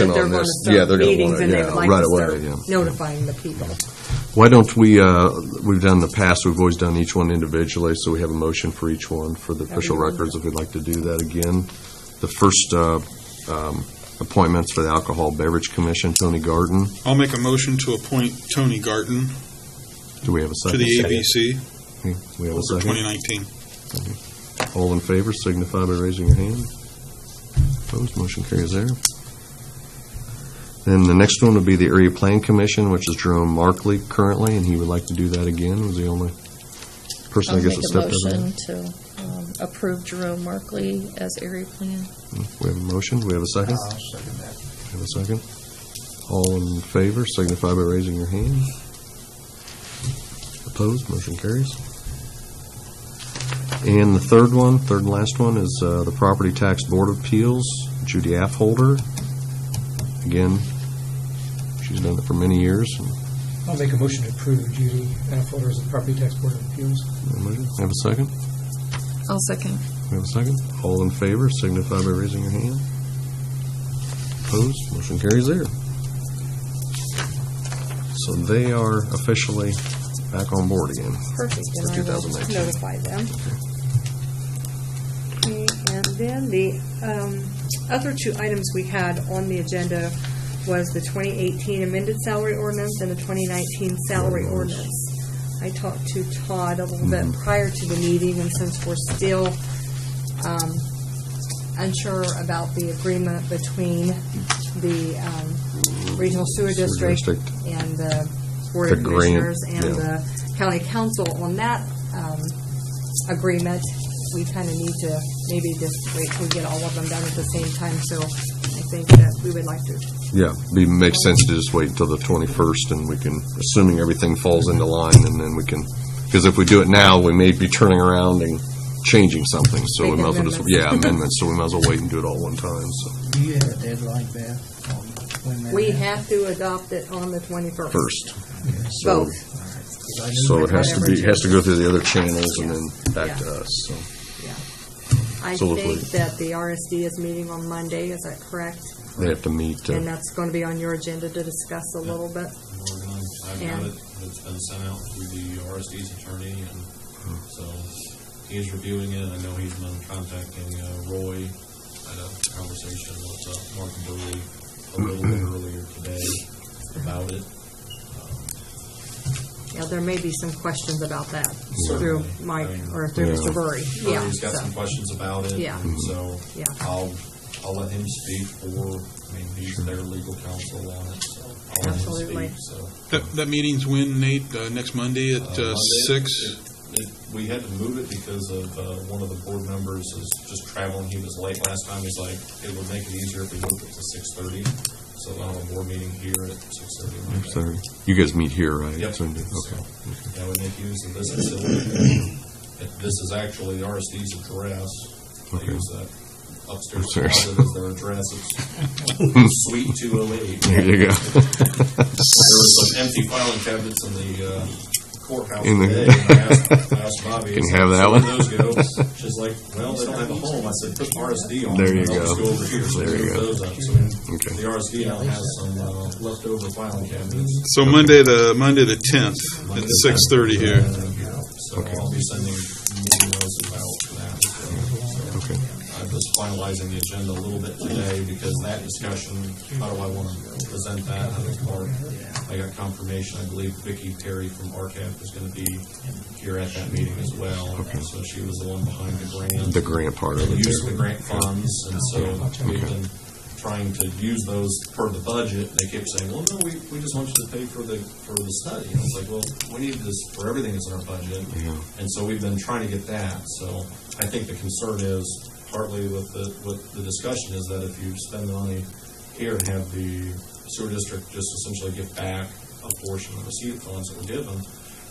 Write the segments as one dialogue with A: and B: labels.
A: action
B: that they're
A: on
B: gonna
A: this.
B: start
A: Yeah, they're gonna
B: meetings
A: wanna-
B: and they'd
A: yeah,
B: like
A: right
B: to
A: away,
B: start
A: yeah.
B: Notifying the people.
A: Why don't we, uh, we've done in the past, we've always done each one individually, so we have a motion for each one for the official
B: Everyone.
A: records, if we'd like to do that again. The first uh, um, appointments for the Alcohol Beverage Commission, Tony Garden,
C: I'll make a motion to appoint Tony Garten
A: do we have a
C: to
A: second?
C: the ABC
A: Okay, We have a
C: for
A: second.
C: 2019.
A: All in favor, signify by raising your hand. Opposed, motion carries there. Then the next one would be the Area Plan Commission, which is Jerome Markley currently, and he would like to do that again, was the only person I
D: I'll
A: guess
D: make
A: that stepped
D: a
A: up.
D: motion to um, approve Jerome Markley as area plan.
A: We have a motion, do we have a second? Have a second? All in favor, signify by raising your hand. Opposed, motion carries. And the third one, third and last one, is uh, the Property Tax Board of Appeals, Judy Affolter. Again, she's done it for many years.
E: I'll make a motion to approve Judy Affolter as the Property Tax Board of Appeals.
A: Have a second?
D: I'll second.
A: We have a second? All in favor, signify by raising your hand. Opposed, motion carries there. So they are officially back on board again.
B: Perfect,
A: For
B: and I will
A: 2019.
B: notify them. Okay, And then the um, other two items we had on the agenda was the 2018 amended salary ordinance and the 2019 salary ordinance. Mm-hmm. I talked to Todd a little bit prior to the meeting, and since we're still um, unsure about the agreement between the um, Regional Sewer
A: Sewer district.
B: District and the Board
A: The
B: of
A: grant,
B: Commissioners and
A: yeah.
B: the county council on that um, agreement, we kind of need to maybe just wait till we get all of them done at the same time, so I think that we would like to
A: Yeah, be, makes sense to just wait until the 21st and we can, assuming everything falls into line and then we can, because if we do it now, we may be turning around and changing something, so we
B: Make
A: might as well just,
B: amendments.
A: yeah, amendments, so we might as well wait and do it all one time, so,
F: Do you have a deadline, Beth, on when that?
B: We have to adopt it on the 21st.
A: first. So-
B: Both.
A: So it has to be, it has to go through the other channels and then back
B: Yes.
A: to us, so.
B: I
A: So we'll
B: think
A: wait.
B: that the RSD is meeting on Monday, is that correct?
A: They have to meet. uh,
B: And that's going to be on your agenda to discuss a little bit.
G: We're done. I've got
B: And-
G: it, it's been sent out through the RSD's attorney, and so he's reviewing it, I know he's been contacting uh, Roy, I had a conversation with uh, Mark Burley a little bit earlier today about it.
B: Yeah, there may be some questions about that through Mike or through
A: Yeah.
B: Mr. Burry. Yeah,
G: Burley's got
B: so,
G: some questions about it,
B: Yeah.
G: and so
B: Yeah.
G: I'll, I'll let him speak, or, I mean, he's their legal counsel on it, so I'll let him
B: Absolutely.
G: speak, so.
C: That, that meeting's when, Nate? Uh, Next Monday at
G: Uh,
C: uh,
G: Monday.
C: six?
G: It- it- We had to move it because of, uh, one of the board members is just traveling, he was late last time, he's like, it would make it easier if we moved it to six thirty, so I'll have a board meeting here at six thirty.
A: Sorry. You guys meet here, right?
G: Yep.
A: So, Okay.
G: So, That would make use of this facility, If this is actually the RSD's address, they
A: Okay.
G: use that upstairs
A: Upstairs.
G: closet as their address, it's suite two oh eight.
A: There you go.
G: There were some empty filing cabinets in the uh, courthouse
A: In the-
G: today, and I asked- I asked Bobby. I
A: Can you
G: said,
A: have that
G: "So
A: one?"
G: where'd those go? She's like, well, they don't have a home. I said, put RSD on.
A: There
G: them,
A: you
G: and I'll just
A: go.
G: go over here. So
A: There
G: we
A: you
G: moved
A: go.
G: those up. So we-
A: Okay.
G: The RSD now has some uh, leftover filing cabinets.
C: So Monday, the, Monday the 10th at six thirty here.
G: So I'll be sending emails about that. So
A: Okay.
G: I'm just finalizing the agenda a little bit today because that discussion, how do I want to present that? How does Mark, I got confirmation, I believe Vicki Perry from RCAP is going to be here at that meeting as well. So she was the one behind the grant.
A: The grant part of it.
G: Use of the grant funds, and so we've been trying to use those per the budget. They kept saying, well, no, we, we just want you to pay for the, for the study. And I was like, well, we need this for everything that's in our budget. And so we've been trying to get that, so I think the concern is partly with the, with the discussion is that if you spend the money here and have the sewer district just essentially give back a portion of the seed funds that were given,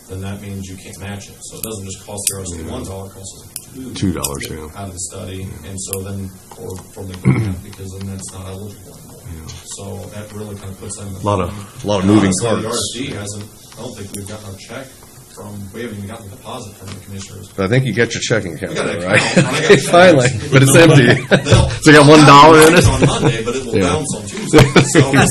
G: then that means you can't match it. So it doesn't just cost the RSD one dollar, it costs us two.
A: Two dollars, yeah.
G: Out of the study, and so then, or from the grant, because then that's not eligible anymore. So that really kind of puts them. in the-
A: Lot of- lot of moving
G: Honestly,
A: parts.
G: The RSD hasn't, I don't think we've gotten our check from, we haven't even gotten the deposit from the commissioners.
H: But I think you got your checking account,
G: We got an
H: right?
G: account, and I got
H: Okay,
G: checks.
H: Finally, but it's empty.
G: They'll-
H: So you got one dollar in
G: they'll
H: it?
G: have mine On Monday, but it will
H: Yeah.
G: bounce on Tuesday, so.